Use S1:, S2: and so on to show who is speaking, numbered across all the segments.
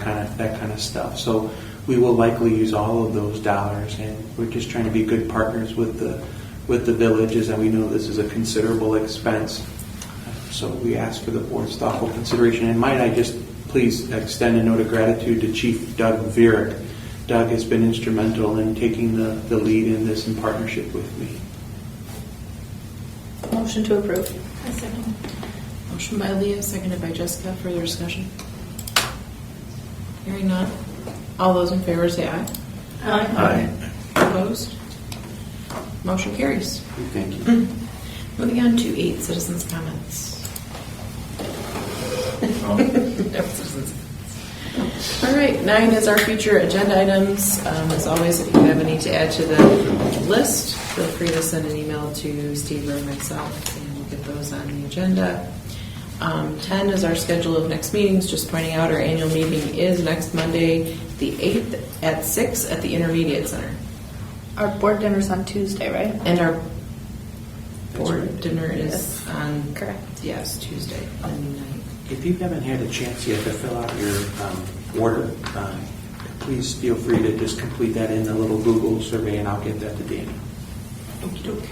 S1: kind of, that kind of stuff. So we will likely use all of those dollars, and we're just trying to be good partners with the, with the villages, and we know this is a considerable expense. So we ask for the board's thoughtful consideration, and might I just please extend a note of gratitude to Chief Doug Vierick. Doug has been instrumental in taking the, the lead in this in partnership with me.
S2: Motion to approve.
S3: I second. Motion by Leah, seconded by Jessica. Further discussion? Hearing none. All those in favor say aye.
S1: Aye.
S3: Opposed? Motion carries.
S1: Thank you.
S3: Moving on to eight, citizens' comments. No citizens. All right, nine is our future agenda items. Um, As always, if you have any to add to the list, feel free to send an email to Steve or myself, and we'll get those on the agenda. Um, Ten is our schedule of next meetings, just pointing out our annual meeting is next Monday, the 8th, at six at the Intermediate Center.
S2: Our board dinner's on Tuesday, right?
S3: And our
S1: That's
S3: board
S1: right.
S3: dinner is
S2: Yes.
S3: on.
S2: Correct.
S3: Yes, Tuesday, the ninth.
S1: If you haven't had a chance yet to fill out your um, order, um, please feel free to just complete that in the little Google survey, and I'll get that to Danny.
S3: Okey doke.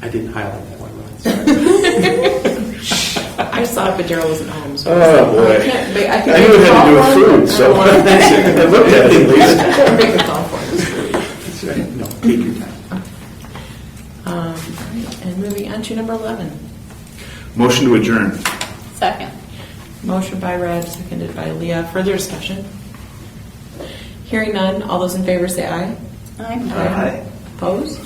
S1: I didn't highlight that one, Ron. sorry.
S3: I saw it, but Daryl wasn't home, so.
S4: Oh, boy.
S3: I can't make- I
S4: I
S3: can
S4: knew it
S3: make a
S4: had to
S3: call
S4: do with
S3: for it.
S4: food, so
S3: I don't wanna-
S4: I looked at it at least.
S3: I can make a call for it.
S1: That's right. No, take your time.
S3: Um, all right, And moving on to number 11.
S4: Motion to adjourn.
S2: Second.
S3: Motion by Reg, seconded by Leah. Further discussion? Hearing none, all those in favor say aye.
S2: Aye.
S3: Opposed?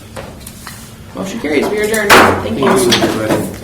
S3: Motion carries, we are adjourned. Thank you.
S1: Thank you, everybody.